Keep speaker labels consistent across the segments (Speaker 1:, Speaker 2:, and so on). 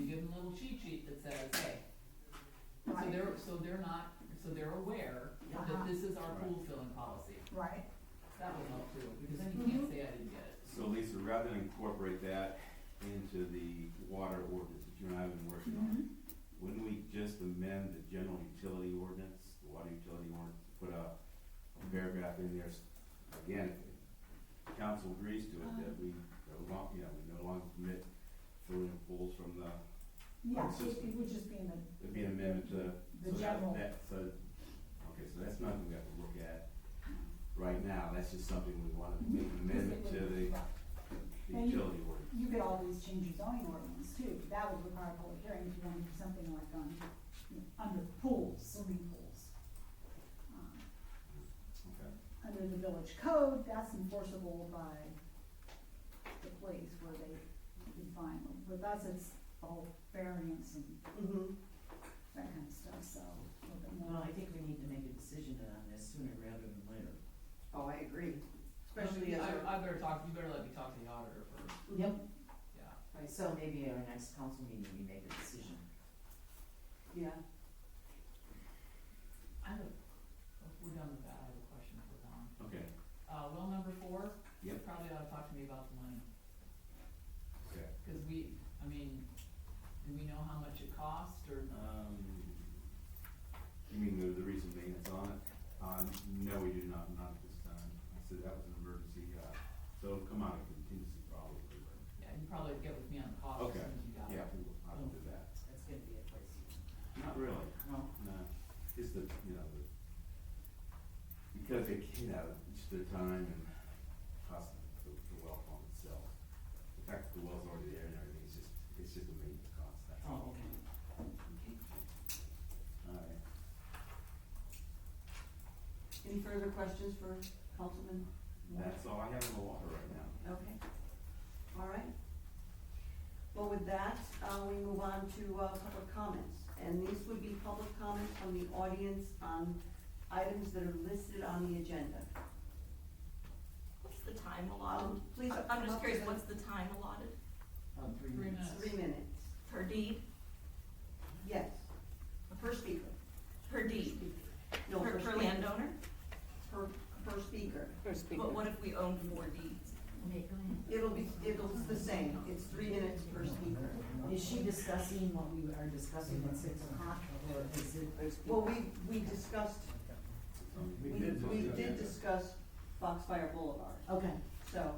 Speaker 1: little cheat sheet that says, hey, so
Speaker 2: Right.
Speaker 1: they're, so they're not, so they're aware
Speaker 2: Uh-huh.
Speaker 1: that this is our pool filling policy.
Speaker 2: right?
Speaker 1: That would help too, because then you can't say I didn't get it.
Speaker 3: So Lisa, rather than incorporate that into the water ordinance that you and I have been working on,
Speaker 2: Mm-hmm.
Speaker 3: wouldn't we just amend the general utility ordinance, the water utility ordinance, put a a paragraph in there, s- again, if council agrees to it, that we, no lon- you know, we no longer permit filling of pools from the,
Speaker 2: Yeah, it-
Speaker 3: Consistent.
Speaker 2: it would just be in the,
Speaker 3: it'd be an amendment to,
Speaker 2: the
Speaker 3: so that,
Speaker 2: general,
Speaker 3: that, so, okay, so that's nothing we have to look at right now, that's just something we wanna make an amendment to
Speaker 2: Right. And
Speaker 3: the the
Speaker 2: Mm-hmm. you-
Speaker 3: utility ordinance.
Speaker 2: You could always change your zoning ordinance too, but that would require a public hearing if you wanted to do something like on, you know, under pools, swimming pools. Um,
Speaker 3: Okay.
Speaker 2: Under the village code, that's enforceable by the place where they define them. With us, it's all variance and
Speaker 4: Mm-hmm.
Speaker 2: that kind of stuff, so a little bit
Speaker 5: Well,
Speaker 2: more.
Speaker 5: I think we need to make a decision on this sooner rather than later.
Speaker 4: Oh, I agree, especially as our,
Speaker 1: I, I better talk, you better let me talk to the auditor first,
Speaker 5: Yep.
Speaker 1: yeah.
Speaker 5: Right, so maybe at our next council meeting, we make a decision.
Speaker 4: yeah,
Speaker 1: I have, a- if we're done with that, I have a question for Don.
Speaker 3: Okay,
Speaker 1: Uh, well, number four, you
Speaker 3: Yep.
Speaker 1: probably ought to talk to me about the money,
Speaker 3: okay.
Speaker 1: cause we, I mean, do we know how much it cost or?
Speaker 3: Um, you mean the, the recent maintenance on it? Uh, no, we do not, not at this time. I said that was an emergency, uh, so it'll come out of contingency probably, but,
Speaker 1: Yeah, you probably get with me on the cost as
Speaker 3: Okay.
Speaker 1: soon as you got it.
Speaker 3: yeah, we will, I will do that.
Speaker 5: That's gonna be a place.
Speaker 3: Not really,
Speaker 5: No,
Speaker 4: Oh.
Speaker 3: no, it's the, you know, the, because it, you know, it's the time and cost of the, the well pump itself. The fact that the well's already there and everything, it's just, it's just a maintenance cost, that's all.
Speaker 5: oh, okay.
Speaker 3: Alright.
Speaker 4: any further questions for Councilman? Moore?
Speaker 3: That's all I have in the water right now.
Speaker 4: Okay, all right. Well, with that, uh, we move on to, uh, public comments, and these would be public comments from the audience on items that are listed on the agenda.
Speaker 6: What's the time allotted?
Speaker 4: Um, please.
Speaker 6: I'm
Speaker 4: come up
Speaker 6: just curious,
Speaker 4: with
Speaker 6: what's the time allotted
Speaker 5: Uh, three
Speaker 1: Three
Speaker 5: minutes.
Speaker 1: minutes.
Speaker 4: Three minutes,
Speaker 6: per deed,
Speaker 4: yes, per speaker.
Speaker 6: per deed,
Speaker 4: No,
Speaker 6: per,
Speaker 4: per
Speaker 6: per
Speaker 4: speaker.
Speaker 6: landowner?
Speaker 4: Per, per speaker.
Speaker 6: But what if we own four deeds?
Speaker 4: It'll be, it'll, it's the same, it's three minutes per speaker.
Speaker 5: Is she discussing what we are discussing at six o'clock, or is it?
Speaker 4: Well, we, we discussed, we, we did
Speaker 3: discuss
Speaker 4: discuss Foxfire Boulevard,
Speaker 5: Okay,
Speaker 4: so.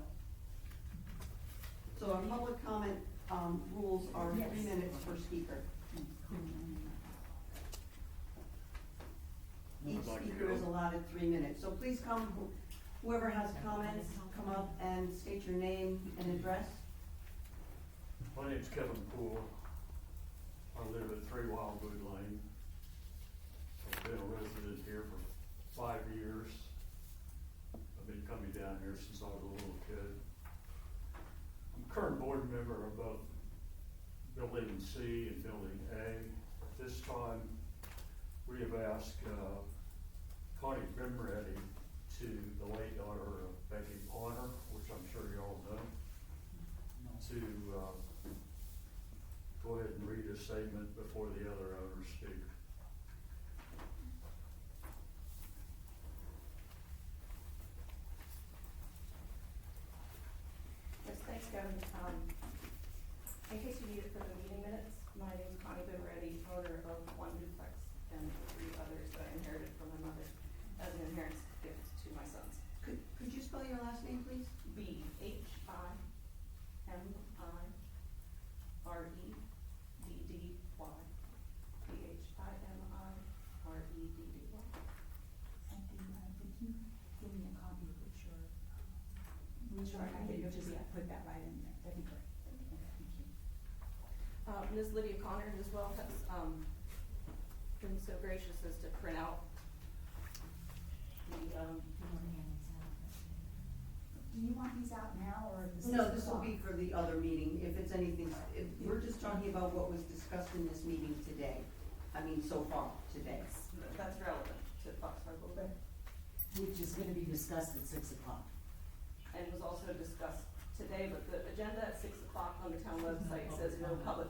Speaker 4: So our public comment, um, rules are three
Speaker 2: Yes.
Speaker 4: minutes per speaker. Each speaker is allotted three minutes, so please come, wh- whoever has comments, come up and state your name and address.
Speaker 7: My name's Kevin Poole. I live at Three Wildwood Lane. I've been a resident here for five years. I've been coming down here since I was a little kid. I'm current board member of both Building C and Building A. At this time, we have asked uh, Connie Bimready to, the late daughter of Becky Pointer, which I'm sure you all know, to, uh, go ahead and read a statement before the other owners speak.
Speaker 8: Yes, thanks, Kevin. Um, in case you need it for the meeting minutes, my name's Connie Vivaretti, owner of one duplex and three others that I inherited from my mother as an inheritance gift to my sons.
Speaker 4: Could, could you spell your last name, please?
Speaker 8: B H I M I R E D D Y. B H I M I R E D D Y.
Speaker 2: Something, uh, could you give me a copy of what your, um, which
Speaker 8: Sure,
Speaker 2: I
Speaker 8: I can
Speaker 2: think
Speaker 8: give
Speaker 2: you
Speaker 8: it to
Speaker 2: just
Speaker 8: you.
Speaker 2: put that right in there, that'd be great. Okay, thank you.
Speaker 8: Uh, Ms. Lydia Connor as well has, um, been so gracious as to print out the, um,
Speaker 2: Do you want these out now or at the six
Speaker 4: No, this will
Speaker 2: o'clock?
Speaker 4: be for the other meeting, if it's anything, if, we're just talking about what was discussed in this meeting today. I mean, so far, today.
Speaker 8: that's relevant to Foxfire Boulevard.
Speaker 5: which is gonna be discussed at six o'clock.
Speaker 8: and was also discussed today, but the agenda at six o'clock on the town website says no public